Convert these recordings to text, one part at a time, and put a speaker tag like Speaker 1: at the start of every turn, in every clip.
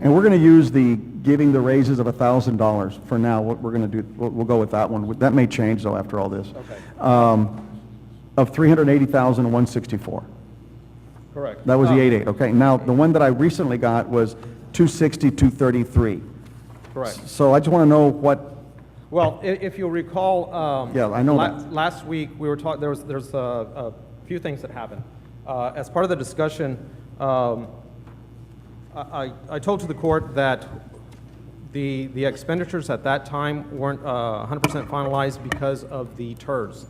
Speaker 1: And we're going to use the giving the raises of $1,000 for now, what we're going to do, we'll, we'll go with that one. That may change though after all this.
Speaker 2: Okay.
Speaker 1: Um, Of 380,164.
Speaker 2: Correct.
Speaker 1: That was the
Speaker 2: Uh,
Speaker 1: 88, okay? Now, the one that I recently got was 260, 233.
Speaker 2: Correct.
Speaker 1: So I just want to know what,
Speaker 2: Well, i- if you recall, um...
Speaker 1: Yeah, I know
Speaker 2: la-
Speaker 1: that.
Speaker 2: Last week, we were talking, there was, there's a, a few things that happened. Uh, as part of the discussion, um, I, I- I told to the court that the, the expenditures at that time weren't, uh, hundred percent finalized because of the TERS.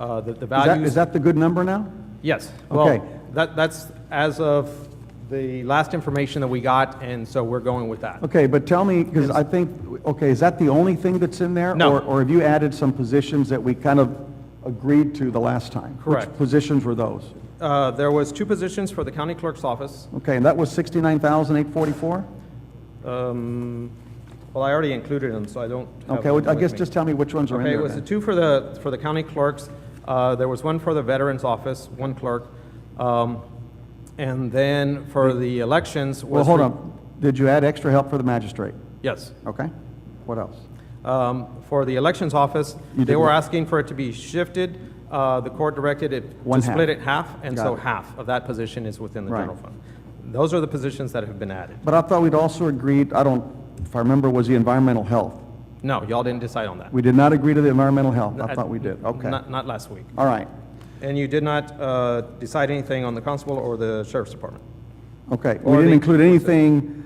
Speaker 2: Uh, the, the
Speaker 1: is that,
Speaker 2: values...
Speaker 1: is that the good number now?
Speaker 2: Yes.
Speaker 1: Okay.
Speaker 2: Well, that, that's as of the last information that we got, and so we're going with that.
Speaker 1: Okay, but tell me, because I think, okay, is that the only thing that's in there?
Speaker 2: No.
Speaker 1: Or- Or have you added some positions that we kind of agreed to the last time? Which
Speaker 2: Correct.
Speaker 1: positions were those?
Speaker 2: Uh, there was two positions for the county clerk's office.
Speaker 1: Okay, and that was 69,844?
Speaker 2: Um, Well, I already included them, so I don't have
Speaker 1: Okay, well,
Speaker 2: them
Speaker 1: I
Speaker 2: with
Speaker 1: guess
Speaker 2: me.
Speaker 1: just tell me which ones are in
Speaker 2: Okay,
Speaker 1: there
Speaker 2: it was the
Speaker 1: then.
Speaker 2: two for the, for the county clerks. Uh, There was one for the veterans office, one clerk. Um, And then for the elections was...
Speaker 1: Well, hold
Speaker 2: re-
Speaker 1: on, did you add extra help for the magistrate?
Speaker 2: Yes.
Speaker 1: Okay, what else?
Speaker 2: Um, For the elections office,
Speaker 1: You
Speaker 2: they
Speaker 1: did
Speaker 2: were
Speaker 1: what?
Speaker 2: asking for it to be shifted. Uh, The court directed it
Speaker 1: One
Speaker 2: to
Speaker 1: half.
Speaker 2: split it half, and
Speaker 1: Got
Speaker 2: so
Speaker 1: it.
Speaker 2: half of that position is within the
Speaker 1: Right.
Speaker 2: general fund. Those are the positions that have been added.
Speaker 1: But I thought we'd also agreed, I don't, if I remember, was the environmental health?
Speaker 2: No, y'all didn't decide on that.
Speaker 1: We did not agree to the environmental health, I
Speaker 2: At-
Speaker 1: thought we did, okay.
Speaker 2: Not, not last week.
Speaker 1: All right,
Speaker 2: And you did not uh, decide anything on the constable or the sheriff's department?
Speaker 1: okay. We
Speaker 2: Or
Speaker 1: didn't
Speaker 2: the-
Speaker 1: include anything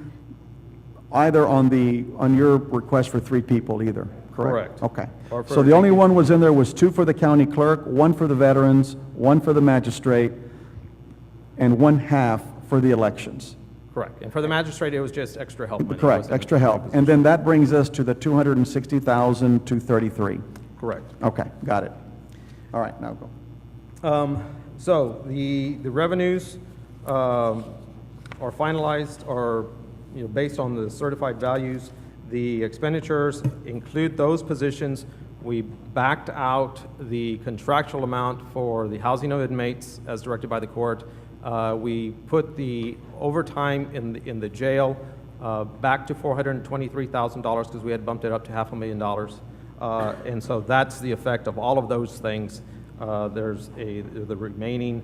Speaker 1: either on the, on your request for three people either, correct?
Speaker 2: Correct.
Speaker 1: Okay.
Speaker 2: Or for
Speaker 1: So the only
Speaker 2: three
Speaker 1: one was in there was two for the county clerk, one for the veterans, one for the magistrate, and one half for the elections.
Speaker 2: Correct. And for the magistrate, it was just extra help money. It
Speaker 1: Correct,
Speaker 2: wasn't-
Speaker 1: extra help. And then that brings us to the 260,233.
Speaker 2: Correct.
Speaker 1: Okay, got it. All right, now go.
Speaker 2: Um, So the, the revenues um, are finalized, are, you know, based on the certified values. The expenditures include those positions. We backed out the contractual amount for the housing of inmates as directed by the court. Uh, We put the overtime in, the- in the jail uh, back to $423,000 because we had bumped it up to half a million dollars. Uh, And so that's the effect of all of those things. Uh, There's a, the remaining,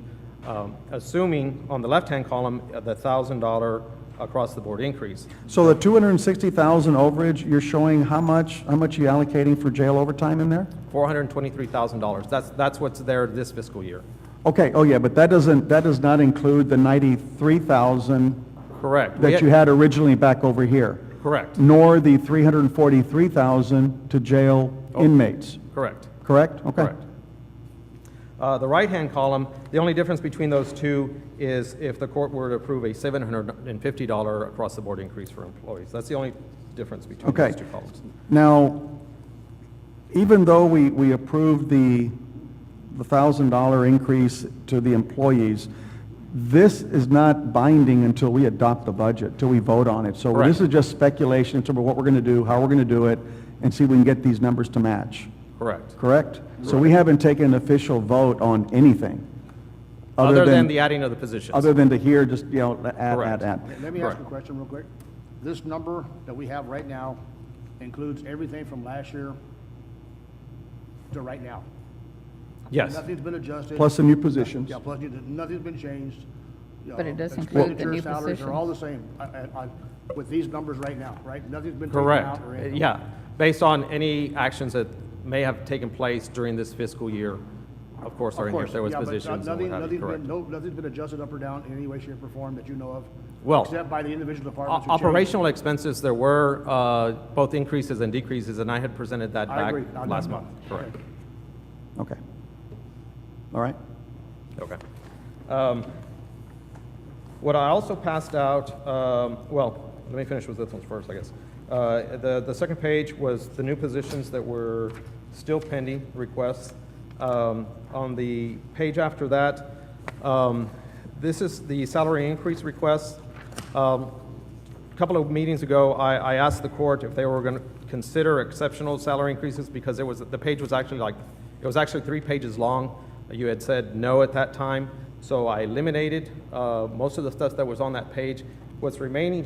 Speaker 2: um, assuming on the left-hand column, uh, the $1,000 across-the-board increase.
Speaker 1: So the 260,000 overage, you're showing how much, how much you allocating for jail overtime in there?
Speaker 2: $423,000, that's, that's what's there this fiscal year.
Speaker 1: Okay, oh yeah, but that doesn't, that does not include the 93,000
Speaker 2: Correct. We
Speaker 1: that you had originally back over here,
Speaker 2: Correct,
Speaker 1: nor the 343,000 to jail
Speaker 2: Oh.
Speaker 1: inmates,
Speaker 2: correct.
Speaker 1: correct? Okay.
Speaker 2: Correct. Uh, The right-hand column, the only difference between those two is if the court were to approve a $750 across-the-board increase for employees. That's the only difference between
Speaker 1: Okay.
Speaker 2: those two columns.
Speaker 1: Now, even though we, we approved the, the thousand dollar increase to the employees, this is not binding until we adopt the budget, till we vote on it. So this
Speaker 2: Correct.
Speaker 1: is just speculation in terms of what we're gonna do, how we're gonna do it, and see if we can get these numbers to match,
Speaker 2: Correct.
Speaker 1: correct? So we haven't taken an official vote on anything,
Speaker 2: Other than the adding of the positions.
Speaker 1: other than to hear, just, you know, add, add,
Speaker 2: Correct.
Speaker 1: add.
Speaker 3: Let me ask you a
Speaker 2: Right.
Speaker 3: question real quick. This number that we have right now includes everything from last year to right now.
Speaker 2: Yes,
Speaker 3: Nothing's been adjusted.
Speaker 1: Plus the new positions.
Speaker 3: Yeah, plus, you- nothing's been changed. You
Speaker 4: But it
Speaker 3: know,
Speaker 4: does include the new
Speaker 3: expenditures, Salaries are all the same, uh, uh, on- with these numbers right now, right? Nothing's been taken
Speaker 2: correct. Uh,
Speaker 3: out or anything.
Speaker 2: Yeah, based on any actions that may have taken place during this fiscal year, of course, or
Speaker 3: Of
Speaker 2: in here,
Speaker 3: course,
Speaker 2: if there was
Speaker 3: yeah, but, uh,
Speaker 2: positions and
Speaker 3: nothing-
Speaker 2: what have you,
Speaker 3: nothing's been-
Speaker 2: correct.
Speaker 3: No, nothing's been adjusted up or down in any way, shape, or form that you know of.
Speaker 2: Well,
Speaker 3: Except by the individual departments.
Speaker 2: O-
Speaker 3: who changed.
Speaker 2: Operational expenses, there were uh, both increases and decreases, and I had presented that
Speaker 3: I
Speaker 2: back
Speaker 3: agree. I know.
Speaker 2: last month. Correct.
Speaker 1: Okay. All right?
Speaker 2: Okay. Um, What I also passed out, um, well, let me finish with this one first, I guess. Uh, The, the second page was the new positions that were still pending requests. Um, On the page after that, um, this is the salary increase request. Um, A couple of meetings ago, I, I asked the court if they were going to consider exceptional salary increases because it was, the page was actually like, it was actually three pages long. You had said no at that time, so I eliminated uh, most of the stuff that was on that page. What's remaining